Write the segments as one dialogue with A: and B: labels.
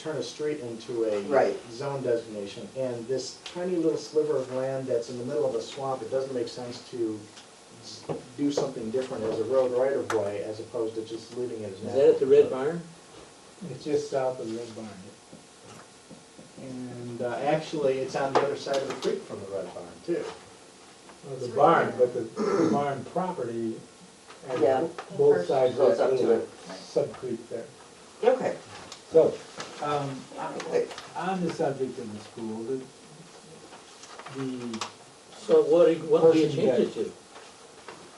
A: turn a street into a
B: Right.
A: zone designation, and this tiny little sliver of land that's in the middle of a swamp, it doesn't make sense to s- do something different as a road right of way as opposed to just leaving it as
C: Is
A: natural.
C: that at the Red Barn?
D: It's just south of Red Barn.
A: And, uh, actually, it's on the other side of the creek from the red barn too.
D: Well, the barn, but the the barn property
B: Yeah.
D: has both sides of
B: Goes up
D: that
B: to
D: little
B: it.
D: sub creek there.
B: Okay,
D: So, um,
B: wait,
D: on the subject of the school, the, the,
C: So what, do- what do you
D: Person
C: change it to?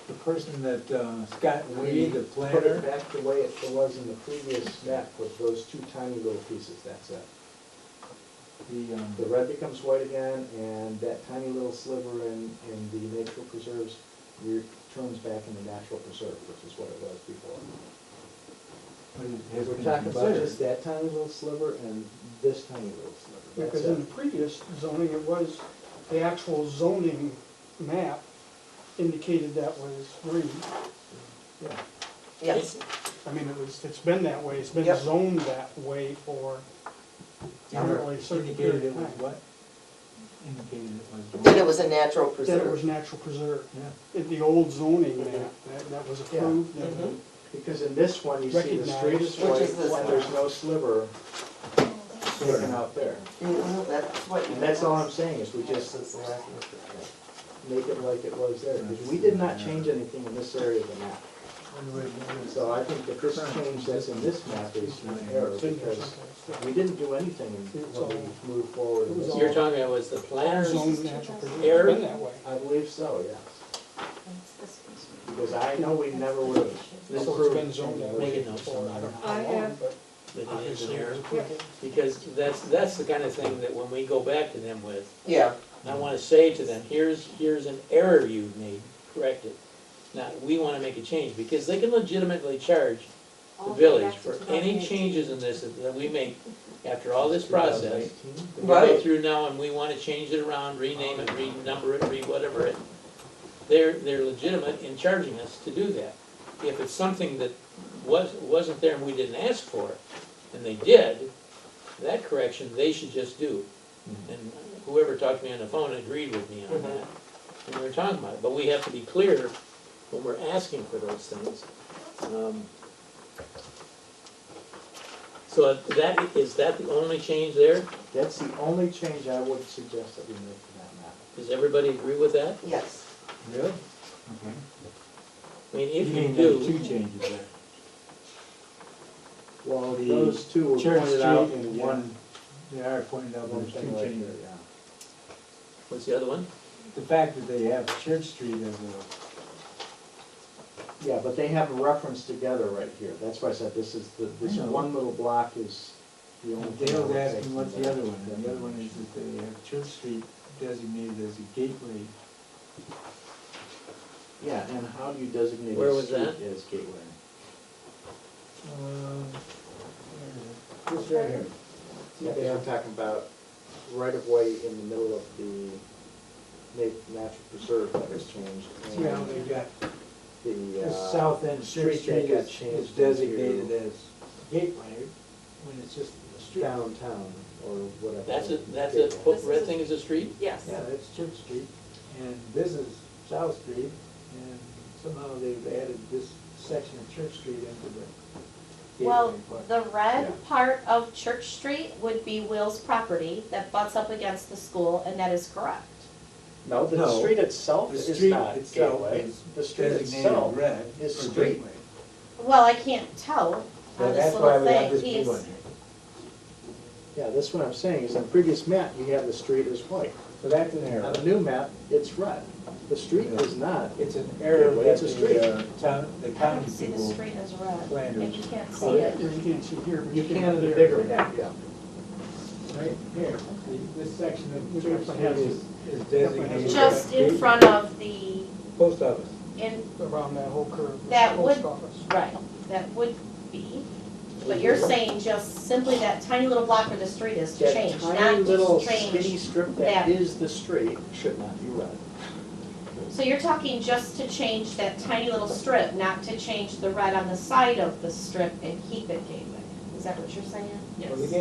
D: the person that, uh, Scott
A: We
D: Wade, the
A: Put it
D: planner,
A: back the way it was in the previous map with those two tiny little pieces, that's it.
D: the, um,
A: The red becomes white again, and that tiny little sliver in, in the natural preserves returns back in the natural preserve, which is what it was before.
D: what is- has
A: We're
D: been
A: talking about
D: considered.
A: just that tiny little sliver and this tiny little sliver,
E: Because
A: that's
E: in the
A: it.
E: previous zoning, it was, the actual zoning map indicated that was green.
A: Yeah.
B: yes,
E: I mean, it was, it's been that way, it's been
B: Yep.
E: zoned that way for apparently a certain
D: Indicated
E: period
D: it
E: of
D: was
E: time.
D: what? Indicated it was.
B: that it was a natural
E: That it was
B: preserve.
E: natural preserve,
D: Yeah.
E: in the old zoning map, that, that was
A: Yeah.
E: approved,
D: Mm-hmm.
E: that-
B: Mhm.
A: Because in this one, you see the street is
E: Recognize-
A: white,
B: Which is this
A: and
B: one.
A: there's no sliver taken out there.
B: Mhm, That's what.
A: And that's all I'm saying, is we just make it like it was there, because we did not change anything in this area of the map. So I think that this change that's in this map is an error,
E: it's in there
A: because
E: someplace.
A: We didn't do anything until we moved forward.
E: It was all-
C: You're talking about was the
E: Yeah.
C: planners,
E: Zoned natural preserve,
C: Error?
E: it's been that way.
A: I believe so, yes. Because I know we never would have
E: This one's
A: approved
E: been zoned that
C: Make
E: way
C: it known
E: for, I don't know
F: I
E: how long,
F: have-
E: but
C: the
E: obviously it
C: engineer,
E: was approved.
C: because that's, that's the kind of thing that when we go back to them with,
B: Yeah,
C: I wanna say to them, here's, here's an error you made, correct it. Now, we wanna make a change, because they can legitimately charge the village for any
F: E.
C: changes in this that we make after all this process. We go
B: Right.
C: through now and we wanna change it around, rename it, renumber it, re-whatever it. They're, they're legitimate in charging us to do that. If it's something that was, wasn't there and we didn't ask for, and they did, that correction, they should just do. And whoever talked to me on the phone agreed with me on that, and we were talking about it, but we have to be clear when we're asking for those things. Um, So that, is that the only change there?
A: That's the only change I would suggest that we make to that map.
C: Does everybody agree with that?
B: yes.
A: Really?
D: Okay.
C: I mean, if you
D: mean there were
C: do,
D: Two changes there.
A: Well,
D: The
A: those two were
D: Church
A: pointed out
D: Street
A: in
D: and-
A: one,
D: They are pointed out,
A: one
D: there's two
A: thing right
D: changes.
A: there, yeah.
C: what's the other one?
D: The fact that they have Church Street as a,
A: Yeah, but they have a reference together right here. That's why I said this is, the this
D: I know.
A: one little block is the only. thing I
D: Dale's
A: would take
D: asking
A: from
D: what's the
A: that-
D: other one, and
A: that
D: the other one is
A: information.
D: that they have Church Street designated as a gateway.
A: Yeah, and how do you designate
C: Where
A: a
C: was
A: street
C: that?
A: as gateway?
D: Uh, This right here.
A: Yeah, they I'm talking about right of way in the middle of the na- natural preserve that was changed. and
D: Yeah, they got,
A: The,
D: the
A: uh,
D: south end Church
A: street that
D: Street
A: got
D: is is
A: changed
D: designated
A: into-
D: as gateway, when it's just a street.
A: downtown or whatever.
C: That's a, that's a,
A: Gateway.
C: put red thing is a street?
F: Yes.
D: Yeah, that's Church Street, and this is South Street, and somehow they've added this section of Church Street into the
F: Well,
D: gateway part.
F: the
A: Yeah.
F: red part of Church Street would be Will's property that butts up against the school, and that is correct.
A: No, the
D: No.
A: street itself
D: The
A: is
D: street
A: not
D: itself
A: gateway.
D: is
A: The street
D: Designated
A: itself.
D: red
A: is
D: for
A: street.
D: gateway.
F: Well, I can't tell on
D: But
F: this
D: That's why
F: little
D: we have
F: thing.
D: this big
F: He's-
D: one here.
A: Yeah, that's what I'm saying, is on the previous map, you have the street as white.
D: So that's an
A: On
D: error.
A: the new map, it's red. The street
D: Yeah.
A: is not.
D: It's an error
A: Gateway, it's
D: that
A: a
D: the uh, town, the
F: I don't
D: county
F: see the
D: people.
F: street as red,
D: Planners.
F: and you can't see
E: Oh, yeah,
F: it.
E: You can't see here, but
A: You
E: you
A: can in
E: can
A: the
E: there.
A: bigger map, yeah.
D: Right here, the- this section
E: We
D: of
E: definitely
D: Church Street
E: have
D: is is designated. as
F: Just in
D: gateway.
F: front of the,
D: Post office.
F: in,
E: Around that whole curve. with the
F: That
E: post
F: would-
E: office.
F: right, that would be. But you're saying just simply that tiny little block where the street is to
A: That
F: change,
A: tiny
F: not
A: little
F: just
A: skinny
F: change.
A: strip that
F: that.
A: is the street should not be red.
F: So you're talking just to change that tiny little strip, not to change the red on the side of the strip and keep it gateway. Is that what you're saying?
D: Well, the